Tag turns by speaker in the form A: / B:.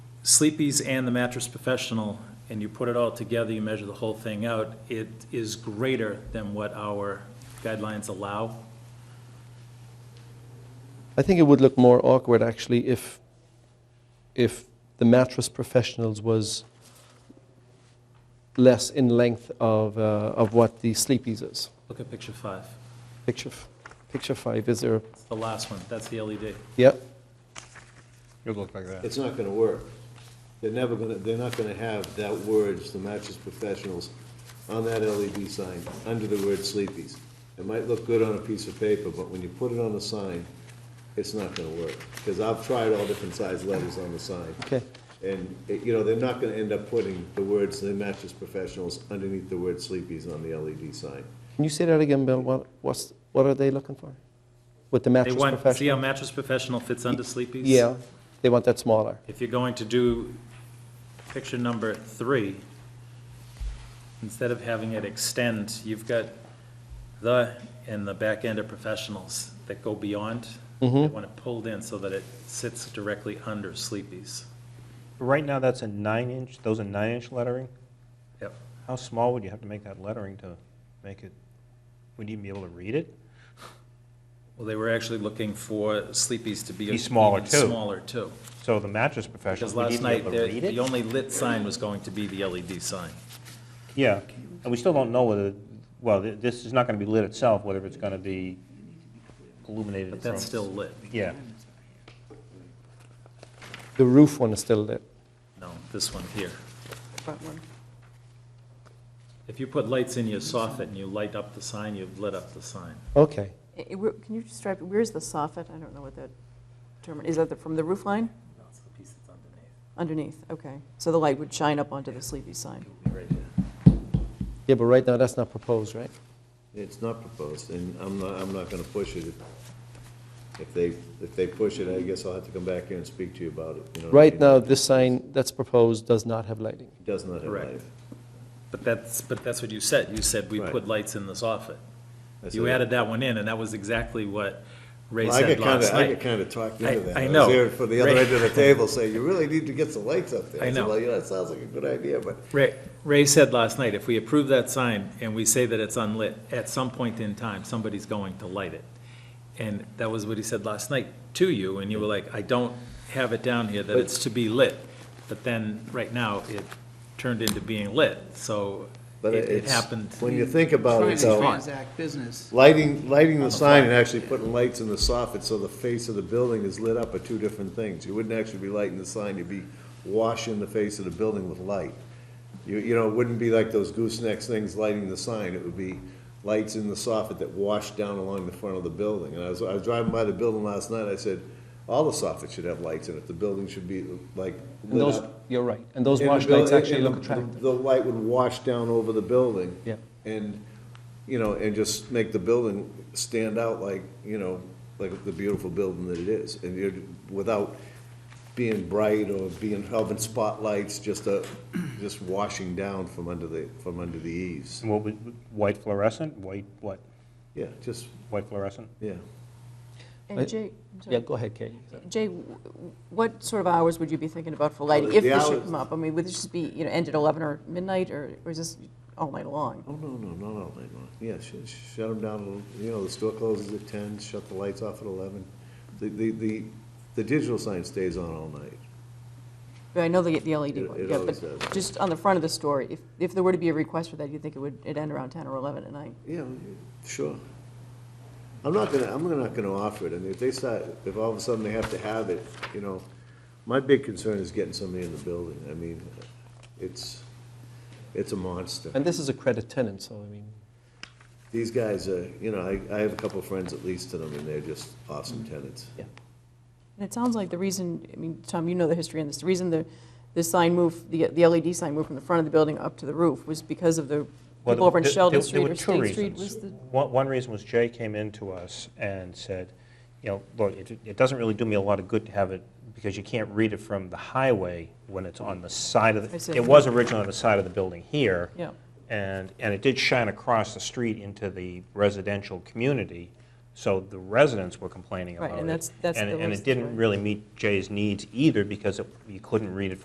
A: Sleepy's and the mattress professional, and you put it all together, you measure the whole thing out, it is greater than what our guidelines allow.
B: I think it would look more awkward actually if, if the mattress professionals was less in length of, uh, of what the sleepies is.
A: Look at picture five,
B: Picture, f- picture five is there.
A: It's the last one, that's the E LED.
B: Yeah,
C: It'd look like that.
D: It's not gonna work. They're never gonna, they're not gonna have that words, the mattress professionals, on that LED sign, under the word sleepies. It might look good on a piece of paper, but when you put it on a sign, it's not gonna work. Because I've tried all different size letters on the sign.
B: okay.
D: And, it- you know, they're not gonna end up putting the words, the mattress professionals, underneath the word sleepies on the LED sign.
B: Can you say that again, Bill? What, what's, what are they looking for? With the
A: They
B: mattress
A: want, see
B: professional?
A: how mattress professional fits under Sleepy's?
B: Yeah, they want that smaller.
A: If you're going to do picture number three, instead of having it extend, you've got the and the back end of professionals that go beyond. They
B: Mm-hmm.
A: want it pulled in so that it sits directly under Sleepy's.
C: Right now, that's a nine-inch, those are nine-inch lettering?
A: Yep.
C: How small would you have to make that lettering to make it, would you even be able to read it?
A: Well, they were actually looking for Sleepy's to be.
C: Be smaller,
A: even
C: too.
A: Smaller too.
C: So the mattress professionals
A: Because
C: would
A: last
C: even be
A: night,
C: able to
A: the
C: read
A: the
C: it?
A: only lit sign was going to be the LED sign.
C: Yeah, and we still don't know whether, well, th- this is not going to be lit itself, whether it's going to be illuminated from...
A: But that's still lit.
C: Yeah,
B: The roof one is still lit.
A: No, this one here.
E: front one.
A: If you put lights in your soffit and you light up the sign, you've lit up the sign.
B: Okay.
E: Eh, eh, where- Can you just describe, where's the soffit? I don't know what that term, is that the- from the roof line?
A: No, it's the piece that's underneath.
E: Underneath, okay. So the light would shine up onto the sleepy sign.
A: Right here.
B: Yeah, but right now that's not proposed, right?
D: It's not proposed, and I'm not, I'm not gonna push it. If they, if they push it, I guess I'll have to come back here and speak to you about it, you know. what I
B: Right
D: mean?
B: now, this sign that's proposed does not have lighting.
D: It Does not have
A: Correct.
D: life.
A: But that's, but that's what you said. You said we
D: Right.
A: put lights in the soffit.
D: I
A: You
D: said-
A: added that one in, and that was exactly what Ray
D: Well, I
A: said
D: get kind
A: last
D: of, I get
A: night.
D: kind of talked
A: I-
D: into that.
A: I
D: was
A: know.
D: here For the other
A: Right.
D: end of the table, saying, you really need to get some lights up there.
A: I
D: said,
A: know.
D: Well, yeah, that sounds like a good idea, but
A: Ray, Ray said last night, if we approve that sign and we say that it's unlit, at some point in time, somebody's going to light it. And that was what he said last night to you, and you were like, I don't have it down here that it's to be lit. But then, right now, it turned into being lit, so
D: But
A: it it
D: it's,
A: happened.
D: when you think about
F: Trying
D: it,
F: to
D: though,
F: transact business.
D: lighting, lighting the sign and actually putting lights in the soffit so the face of the building is lit up are two different things. You wouldn't actually be lighting the sign, you'd be washing the face of the building with light. You, you know, it wouldn't be like those goosenecks things lighting the sign, it would be lights in the soffit that wash down along the front of the building. And I was, I was driving by the building last night, I said, all the soffits should have lights in it, the building should be like
B: And
D: lit
B: those,
D: up.
B: you're right, and those
D: And the
B: wash
D: buil-
B: lights
D: and-
B: actually
D: and
B: look
D: the-
B: attractive.
D: The light would wash down over the building.
B: Yeah.
D: And, you know, and just make the building stand out like, you know, like the beautiful building that it is. And you're, without being bright or being, having spotlights, just a, just washing down from under the, from under the eaves.
C: and what would, white fluorescent, white, what,
D: Yeah, just,
C: white fluorescent?
D: yeah.
B: I-
E: And Jay, I'm sorry.
B: Yeah, go ahead, Katie.
E: Jay, w- w- what sort of hours would you be thinking about for lighting, if
D: the
E: this should
D: hours-
E: come up? I mean, would this just be, you know, end at 11 or midnight, or or is this all night long?
D: Oh, no, no, not all night long. Yeah, shut, shut them down, a little. you know, the store closes at ten, shut the lights off at eleven. The, the, the, the digital sign stays on all night.
E: I know they get the LED
D: It-
E: one,
D: it
E: yeah,
D: always does.
E: but just on the front of the store, if if there were to be a request for that, you'd think it would, it'd end around 10 or 11 at night?
D: Yeah, sure. I'm not gonna, I'm not gonna offer it, I mean, if they start, if all of a sudden they have to have it, you know, my big concern is getting somebody in the building, I mean, it's, it's a monster.
B: And this is a credit tenant, so I mean,
D: These guys are, you know, I, I have a couple of friends at least to them, and they're just awesome tenants.
B: yeah.
E: And it sounds like the reason, I mean, Tom, you know the history on this, the reason the, the sign moved, the the LED sign moved from the front of the building up to the roof was because of the
C: Well,
E: people over in
C: there-
E: Sheldon
C: there- there
E: Street
C: were
E: or
C: two
E: State Street
C: reasons.
E: was the,
C: One, one reason was Jay came in to us and said, you know, look, it, it doesn't really do me a lot of good to have it, because you can't read it from the highway when it's on the side of,
E: I see.
C: the. it was originally on the side of the building here.
E: Yeah.
C: And, and it did shine across the street into the residential community, so the residents were complaining
E: Right,
C: about it.
E: and that's- that's
C: And-
E: the
C: And
E: worst,
C: it didn't
E: right.
C: really meet Jay's needs either, because it- you couldn't read it